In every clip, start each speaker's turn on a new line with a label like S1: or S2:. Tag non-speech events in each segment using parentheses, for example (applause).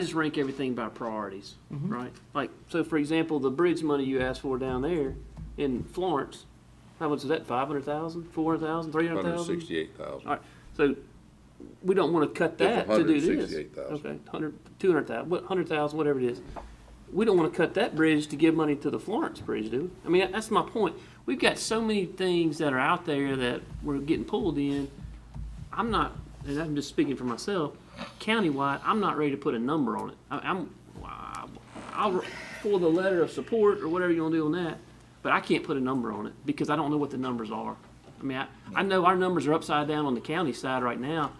S1: just rank everything by priorities, right? Like, so for example, the bridge money you asked for down there in Florence, how much is that, five hundred thousand, four hundred thousand, three hundred
S2: Hundred
S1: thousand?
S2: sixty-eight thousand.
S1: All right, so we don't wanna cut
S2: That's
S1: that to do this.
S2: 168,000.
S1: Okay, hundred, two hundred thousand, what, hundred thousand, whatever it is. We don't wanna cut that bridge to give money to the Florence Bridge, do we? I mean, that's my point. We've got so many things that are out there that we're getting pulled in. I'm not, and I'm just speaking for myself, countywide, I'm not ready to put a number on it. I, I'm, I'll, for the letter of support or whatever you wanna do on that, but I can't put a number on it because I don't know what the numbers are. I mean, I, I know our numbers are upside down on the county side right now.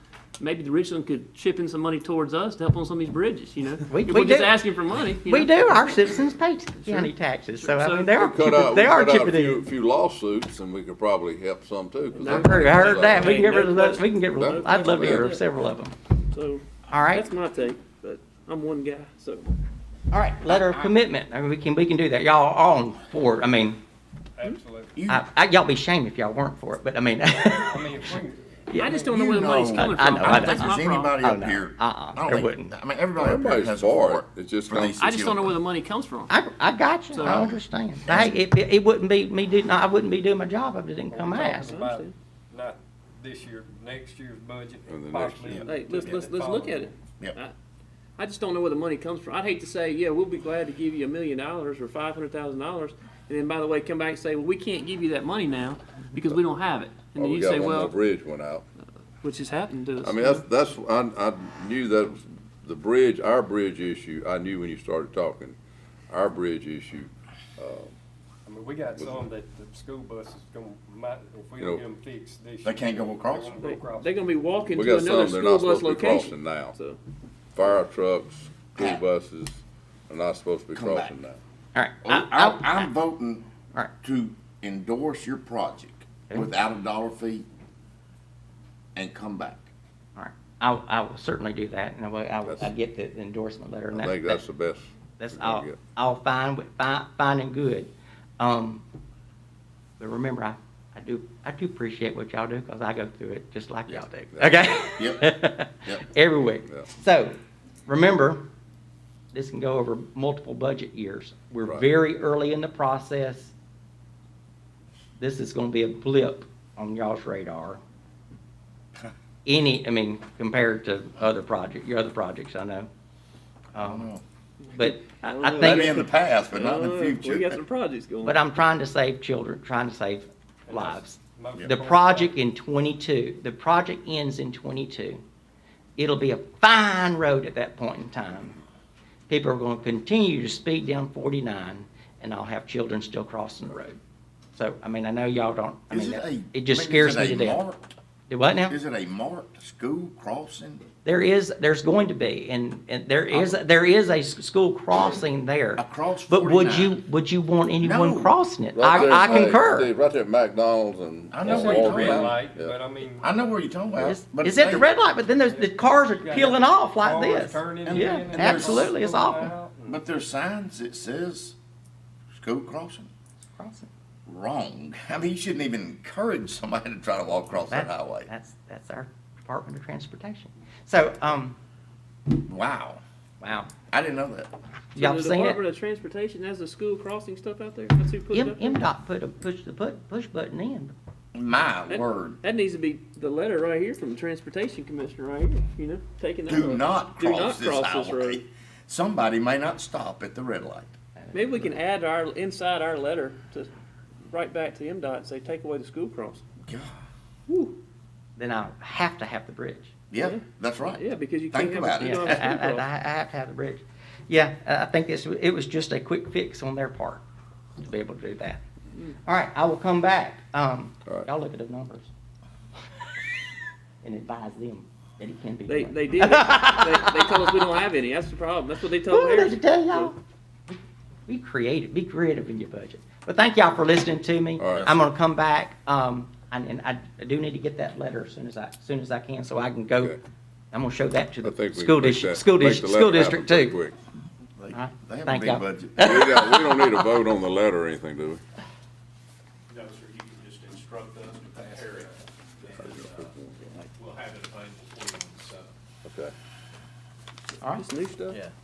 S1: Maybe the Richland could chip in some money towards us to help on some of these bridges, you know?
S3: We-
S1: If
S3: we
S1: We're just
S3: do.
S1: asking for money, you
S3: We
S1: know?
S3: do, our citizens pay county taxes, so I
S1: So-
S3: mean, they are
S2: Cut out,
S3: chipping,
S2: we
S3: they are
S2: cut out a
S3: chipping
S2: few,
S3: in.
S2: few lawsuits and we could probably help some too. 'cause
S3: I've
S2: they're-
S3: heard, I heard that, we
S1: Ain't
S3: can get
S1: no
S3: rid of those,
S1: question.
S3: we can get rid of, I'd love to get rid of several of them.
S1: So,
S3: All right,
S1: that's my take, but I'm one guy, so.
S3: all right, letter of commitment, I mean, we can, we can do that, y'all are on board, I mean,
S4: Absolutely.
S3: I, I, y'all be shamed if y'all weren't for it, but I mean, (laughs)
S4: I mean, if we,
S1: I just don't know where the
S5: You
S1: money's
S5: know-
S1: coming
S3: I- I
S1: from.
S3: know, I know.
S5: I don't
S1: That's
S5: think
S1: my
S5: there's
S1: problem.
S5: anybody
S3: Oh,
S5: up
S3: no.
S5: here.
S3: Uh-uh.
S5: I don't
S3: There
S5: think-
S3: wouldn't.
S5: I mean, everybody up here
S2: Everybody's
S5: has
S2: for
S5: for
S2: it. It's just
S5: for
S2: gonna-
S5: these
S1: I just don't know where
S5: children.
S1: the money comes from.
S3: I, I got you, I understand. I, it, it wouldn't be me do, I wouldn't be doing my job if it didn't come asked.
S4: talking about not this year, next year's budget,
S2: Or the next
S4: possibly.
S2: year.
S1: Hey, let's, let's, let's look at it.
S5: Yep.
S2: Oh,
S1: I- I just don't know where the money comes from. I'd hate to say, yeah, we'll be glad to give you a million dollars or five hundred thousand dollars, and then by the way, come back and say, well, we can't give you that money now because we don't have it. And
S2: Oh,
S1: then
S2: we
S1: you
S2: got
S1: say,
S2: one more
S1: well,
S2: bridge went out.
S1: which has happened to us.
S2: I mean, that's, that's, I, I knew that was the bridge, our bridge issue, I knew when you started talking, our bridge issue.
S4: I mean, we got some that the school bus is gonna, might, if we
S2: You know,
S4: don't get them fixed this year.
S5: They can't go across.
S4: they won't go
S1: They-
S4: across.
S1: They're gonna be walking
S2: We
S1: to
S2: got
S1: another
S2: some they're not
S1: school bus
S2: supposed to be
S1: location.
S2: crossing now. (laughs)
S1: So,
S2: Fire trucks, school buses are not supposed to be
S5: Come back.
S2: crossing now.
S3: All right,
S5: I, I, am voting
S3: Alright.
S5: to endorse your project without a dollar fee and come back.
S3: all right, I, I will certainly do that, and I will, I will, I get the endorsement letter and
S2: I think
S3: that,
S2: that's the best.
S3: that's
S2: we're gonna
S3: all,
S2: get.
S3: all fine, with- fine, fine and good. Um, but remember, I, I do, I do appreciate what y'all do, cause I go through it just like y'all do, okay? (laughs)
S5: Yep, yep.
S3: Every week.
S2: Yeah.
S3: So, remember, this can go over multiple budget years. We're
S2: Right.
S3: very early in the process. This is gonna be a blip on y'all's radar. Any, I mean, compared to other project, your other projects, I know. Um, But I, I
S5: Maybe in
S3: think,
S5: the past, but not in the
S1: uh,
S5: future.
S1: We got some projects going.
S3: but I'm trying to save children, trying to save
S4: And that's
S3: lives.
S4: most
S3: The
S4: important.
S3: project in twenty-two, the project ends in twenty-two. It'll be a fine road at that point in time. People are gonna continue to speed down forty-nine, and I'll have children still crossing the road. So, I mean, I know y'all don't, I
S5: Is
S3: mean,
S5: it
S3: that-
S5: a-
S3: it just
S5: I mean,
S3: scares
S5: is
S3: me
S5: it
S3: to
S5: a
S3: death.
S5: marked-
S3: Do what now?
S5: Is it a marked school crossing?
S3: There is, there's going to be, and, and there is, there is a s- school crossing there.
S5: Across
S3: But would
S5: 49.
S3: you, would you want anyone
S5: No.
S3: crossing it?
S2: Right there
S3: I, I
S2: at Mc-
S3: concur.
S2: Steve, Right there at McDonald's and.
S5: I know
S4: That's
S5: what you're
S4: a
S2: Walmart.
S5: talking
S4: red
S5: about.
S4: light,
S2: Yeah.
S4: but I mean.
S5: I know where you're talking about.
S3: It's
S5: but
S3: it's at
S5: they-
S3: the red light, but then there's, the cars are
S4: you got
S3: peeling off like
S4: cars
S3: this.
S4: turning
S5: And-
S4: in
S5: yeah,
S4: and
S3: absolutely, it's
S4: going
S3: awful.
S4: out and-
S5: But there's signs that says school crossing.
S3: Crossing.
S5: Wrong. (laughs) I mean, you shouldn't even encourage somebody to try to walk across that
S3: That's-
S5: highway.
S3: That's, that's our Department of Transportation. So, um,
S5: Wow.
S3: wow,
S5: I didn't know that.
S1: So
S3: y'all
S1: the
S3: seen
S1: Department
S3: it?
S1: of Transportation has the school crossing stuff out there. That's who put it
S3: M,
S1: up there.
S3: MDOT put a, push the put, push button in.
S5: My
S1: That-
S5: word.
S1: That needs to be the letter right here from the transportation commissioner right here, you know, taking that.
S5: Do
S1: road.
S5: not
S1: Do not
S5: cross this
S1: cross this
S5: highway.
S1: road.
S5: Somebody may not stop at the red light.
S1: Maybe we can add our, inside our letter to, right back to MDOT and say, take away the school cross.
S5: God.
S1: Woo,
S3: Then I have to have the bridge.
S5: Yeah,
S1: Yeah.
S5: that's right.
S1: yeah, because you
S5: Think
S1: can't have.
S5: about
S1: a- you
S3: Yeah, (laughs)
S5: it.
S1: don't
S3: I,
S1: have a
S3: I,
S1: school
S3: I
S1: cross.
S3: I have to have the bridge. Yeah, I I think this, it was just a quick fix on their part to be able to do that. All right, I will come back. Um,
S2: Mm. All right.
S3: y'all look at the numbers. And advise them that it can be
S1: They,
S3: done.
S1: they did, they, they told us we don't have any, that's the problem, that's what they told
S3: Ooh, did
S1: Harrison.
S3: you tell y'all? Be creative, be creative in your budget. But thank y'all for listening to me.
S2: All right.
S3: I'm gonna come back, um, and, and I I do need to get that letter as soon as I, as soon as I can, so I can go.
S2: Okay.
S3: I'm gonna show that to
S2: I think
S3: the
S2: we
S3: school
S2: can make
S3: district,
S2: that-
S3: school
S2: make the
S3: district,
S2: letter
S3: school
S2: happen
S3: district
S2: pretty
S3: too.
S2: quick.
S5: They,
S3: Huh?
S5: they have a
S3: Thank y'all.
S5: big budget.
S2: We don't, we don't need a vote on the letter or anything, do
S6: No, sir, you can just instruct us to prepare it, and uh, we'll have it available for you on the seventh.
S2: we? Okay.
S7: All right.
S8: This new stuff?
S1: Yeah.